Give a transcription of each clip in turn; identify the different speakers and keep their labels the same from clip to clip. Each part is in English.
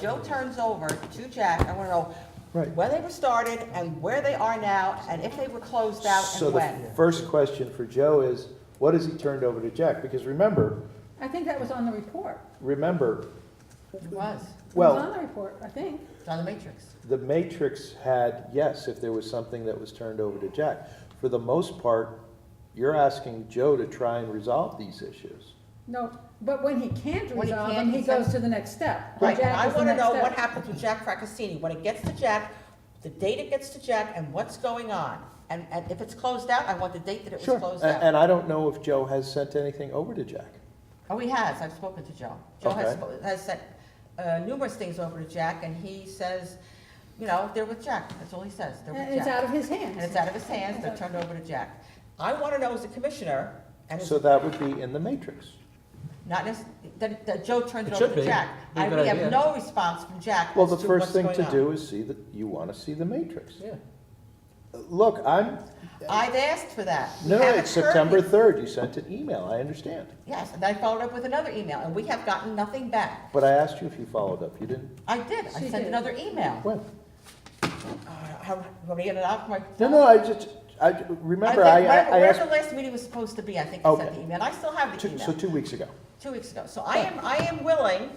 Speaker 1: Joe turns over to Jack, I wanna know
Speaker 2: Right.
Speaker 1: where they were started and where they are now, and if they were closed out
Speaker 2: So
Speaker 1: and
Speaker 2: the
Speaker 1: when.
Speaker 2: first question for Joe is, what has he turned over to Jack? Because remember,
Speaker 3: I think that was on the report.
Speaker 2: remember,
Speaker 4: It was,
Speaker 3: It was on
Speaker 1: Uh-huh.
Speaker 2: well,
Speaker 3: the report, I think.
Speaker 4: it's on the matrix.
Speaker 2: the matrix had, yes, if there was something that was turned over to Jack. For the most part, you're asking Joe to try and resolve these issues.
Speaker 3: No, but when he can't
Speaker 4: When he
Speaker 3: resolve
Speaker 4: can't,
Speaker 3: them, he
Speaker 4: he said-
Speaker 3: goes to the next step.
Speaker 1: Right, and
Speaker 3: Jack
Speaker 1: I
Speaker 3: is the
Speaker 1: wanna
Speaker 3: next
Speaker 1: know what
Speaker 3: step.
Speaker 1: happens with Jack Fracassini, when it gets to Jack, the date it gets to Jack, and what's going on. And, and if it's closed out, I want the date that it was
Speaker 2: Sure,
Speaker 1: closed
Speaker 2: A-
Speaker 1: out.
Speaker 2: and I don't know if Joe has sent anything over to Jack.
Speaker 1: Oh, he has, I've spoken to Joe. Joe has,
Speaker 2: Okay.
Speaker 1: spo- has sent uh, numerous things over to Jack, and he says, you know, they're with Jack, that's all he says, they're with Jack.
Speaker 3: And it's out of his
Speaker 1: And it's
Speaker 3: hands.
Speaker 1: out of his hands, they're turned over to Jack. I want to know as a commissioner, and it's
Speaker 2: So that would be in the matrix.
Speaker 1: not, nec- that that Joe turns
Speaker 5: It
Speaker 1: it over
Speaker 5: should
Speaker 1: to
Speaker 5: be.
Speaker 1: Jack.
Speaker 5: Be a
Speaker 1: I,
Speaker 5: good
Speaker 1: we have
Speaker 5: idea.
Speaker 1: no response from Jack
Speaker 2: Well,
Speaker 1: as
Speaker 2: the
Speaker 1: to what's
Speaker 2: first
Speaker 1: going
Speaker 2: thing to
Speaker 1: on.
Speaker 2: do is see that, you want to see the matrix.
Speaker 5: Yeah.
Speaker 2: Look, I'm,
Speaker 1: I've asked for that. We
Speaker 2: no,
Speaker 1: haven't
Speaker 2: it's
Speaker 1: heard
Speaker 2: September
Speaker 1: it.
Speaker 2: 3rd, you sent an email, I understand.
Speaker 1: Yes, and I followed up with another email, and we have gotten nothing back.
Speaker 2: But I asked you if you followed up, you didn't,
Speaker 1: I did, I
Speaker 3: She
Speaker 1: sent
Speaker 3: did.
Speaker 1: another email.
Speaker 2: when?
Speaker 1: Uh, How, you want me to get it out my?
Speaker 2: No, no, I just, I,
Speaker 1: I
Speaker 2: remember,
Speaker 1: think
Speaker 2: I,
Speaker 1: wherever-
Speaker 2: I
Speaker 1: Wherever
Speaker 2: asked,
Speaker 1: the last meeting was supposed to be, I think I sent
Speaker 2: Okay.
Speaker 1: the email, and I still have the
Speaker 2: two- so
Speaker 1: email,
Speaker 2: two weeks ago.
Speaker 1: two weeks ago. So I am, I am willing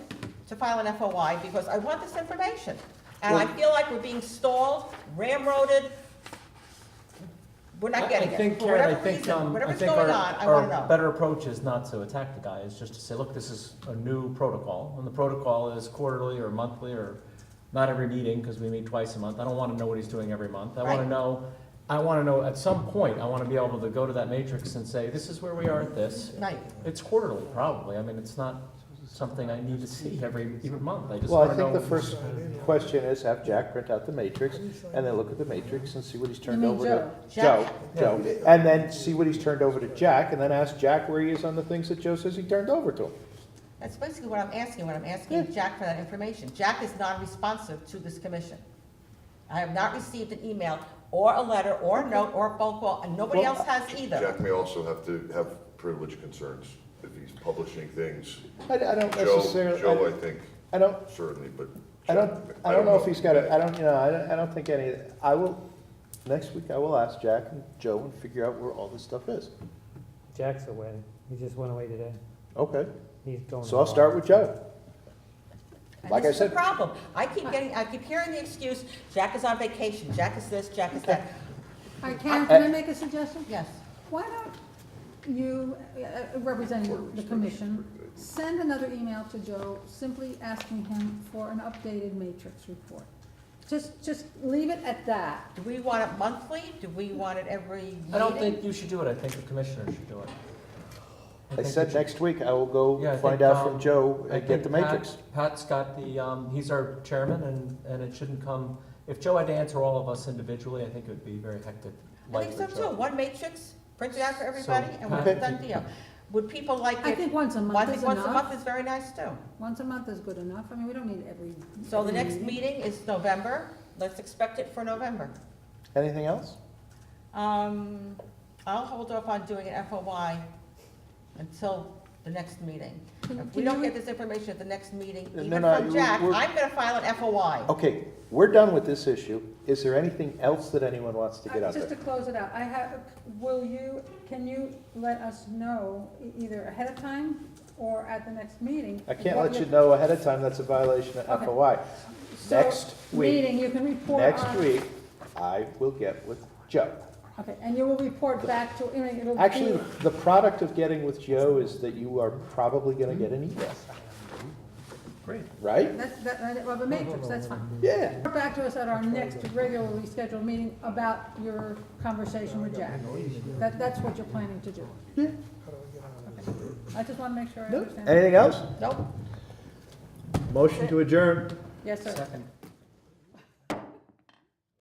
Speaker 1: to file an FOI because I want this information. And I
Speaker 2: Well-
Speaker 1: feel like we're being stalled, ramroded, we're
Speaker 5: I-
Speaker 1: not getting
Speaker 5: I think,
Speaker 1: it. For
Speaker 5: Karen, I
Speaker 1: whatever
Speaker 5: think,
Speaker 1: reason,
Speaker 5: um, I
Speaker 1: whatever's
Speaker 5: think
Speaker 1: going on,
Speaker 5: our,
Speaker 1: I wanna
Speaker 5: our
Speaker 1: know.
Speaker 5: better approach is not to attack the guy, is just to say, look, this is a new protocol. And the protocol is quarterly or monthly or not every meeting, because we meet twice a month. I don't wanna know what he's doing every month. I wanna
Speaker 1: Right.
Speaker 5: know, I wanna know, at some point, I wanna be able to go to that matrix and say, this is where we are at this.
Speaker 1: Right,
Speaker 5: It's quarterly, probably. I mean, it's not something I need to see every, every month. I just
Speaker 2: Well, I
Speaker 5: wanna
Speaker 2: think
Speaker 5: know.
Speaker 2: the first question is have Jack print out the matrix and then look at the matrix and see what he's turned
Speaker 3: mean
Speaker 2: over to.
Speaker 1: Joe?
Speaker 2: Joe, Joe, and then see what he's turned over to Jack and then ask Jack where he is on the things that Joe says he turned over to him.
Speaker 1: that's basically what I'm asking, when I'm asking Jack for that information. Jack is non-responsive to this commission. I have not received an email or a letter or a note or a phone call, and nobody
Speaker 2: Well,
Speaker 1: else has either.
Speaker 6: Jack may also have to have privilege concerns if he's publishing things.
Speaker 2: I, I don't
Speaker 6: Joe,
Speaker 2: necessarily,
Speaker 6: Joe, I
Speaker 2: I-
Speaker 6: think,
Speaker 2: I don't,
Speaker 6: certainly, but.
Speaker 2: I don't,
Speaker 6: Jack,
Speaker 2: I don't know if he's got it, I don't, you know, I don't, I don't think any, I will, next week I will ask Jack and Joe and figure out where all this stuff is.
Speaker 7: Jack's away. He just went away today.
Speaker 2: Okay,
Speaker 7: He's going.
Speaker 2: so I'll start with Joe.
Speaker 1: And
Speaker 2: Like I
Speaker 1: this is the
Speaker 2: said-
Speaker 1: problem. I keep getting, I keep hearing the excuse, Jack is on vacation, Jack is this, Jack is that.
Speaker 3: All right, Karen, can I make a suggestion?
Speaker 1: Yes.
Speaker 3: Why don't you, uh, representing the commission, send another email to Joe simply asking him for an updated matrix report? Just, just leave it at that.
Speaker 1: Do we want it monthly? Do we want it every meeting?
Speaker 5: I don't think you should do it. I think the commissioner should do it.
Speaker 2: I
Speaker 5: think
Speaker 2: said
Speaker 5: we should-
Speaker 2: next week I will
Speaker 5: Yeah, I
Speaker 2: go find
Speaker 5: think,
Speaker 2: out
Speaker 5: um,
Speaker 2: from Joe
Speaker 5: I
Speaker 2: and get
Speaker 5: think
Speaker 2: the
Speaker 5: Pat-
Speaker 2: matrix.
Speaker 5: Pat's got the, um, he's our chairman, and, and it shouldn't come, if Joe had to answer all of us individually, I think it would be very hectic.
Speaker 1: I
Speaker 5: life
Speaker 1: think so
Speaker 5: for Joe.
Speaker 1: too. One matrix, print it out for everybody, and we're
Speaker 5: Okay.
Speaker 1: done deal. Would people like it?
Speaker 3: I think once a
Speaker 1: I
Speaker 3: month
Speaker 1: think
Speaker 3: is
Speaker 1: once a
Speaker 3: enough.
Speaker 1: month is very nice too.
Speaker 3: Once a month is good enough. I mean, we don't need every.
Speaker 1: So the
Speaker 3: every
Speaker 1: next meeting is November. Let's expect it for November.
Speaker 2: Anything else?
Speaker 1: Um, I'll hold off on doing an FOI until the next meeting.
Speaker 3: Can-
Speaker 1: If we
Speaker 3: can
Speaker 1: don't
Speaker 3: you-
Speaker 1: get this information at the next meeting,
Speaker 2: No,
Speaker 1: even
Speaker 2: no,
Speaker 1: from
Speaker 2: you-
Speaker 1: Jack,
Speaker 2: we're-
Speaker 1: I'm gonna file an FOI.
Speaker 2: Okay, we're done with this issue. Is there anything else that anyone wants to get
Speaker 3: Uh,
Speaker 2: out
Speaker 3: Just to
Speaker 2: there?
Speaker 3: close it out, I have, will you, can you let us know e- either ahead of time or at the next meeting?
Speaker 2: I can't
Speaker 3: what
Speaker 2: let you
Speaker 3: your-
Speaker 2: know ahead of time, that's a violation of
Speaker 3: Okay.
Speaker 2: FOI.
Speaker 3: so
Speaker 2: Next week,
Speaker 3: Meeting, you can report on.
Speaker 2: next week, I will get with Joe.
Speaker 3: Okay, and you will report back to, I mean, it'll be.
Speaker 2: Actually, the product of getting with Joe is that you are probably gonna get an email,
Speaker 5: Great.
Speaker 2: right?
Speaker 3: That's, that, that- well, the matrix, that's fine.
Speaker 2: Yeah.
Speaker 3: Report back to us at our next regularly scheduled meeting about your conversation with Jack. That, that's what you're planning to do. Hmm? Okay. I just want to make sure I
Speaker 2: No?
Speaker 3: understand.
Speaker 2: Anything else?
Speaker 1: Nope.
Speaker 2: Motion to adjourn.
Speaker 3: Yes, sir.
Speaker 5: Second.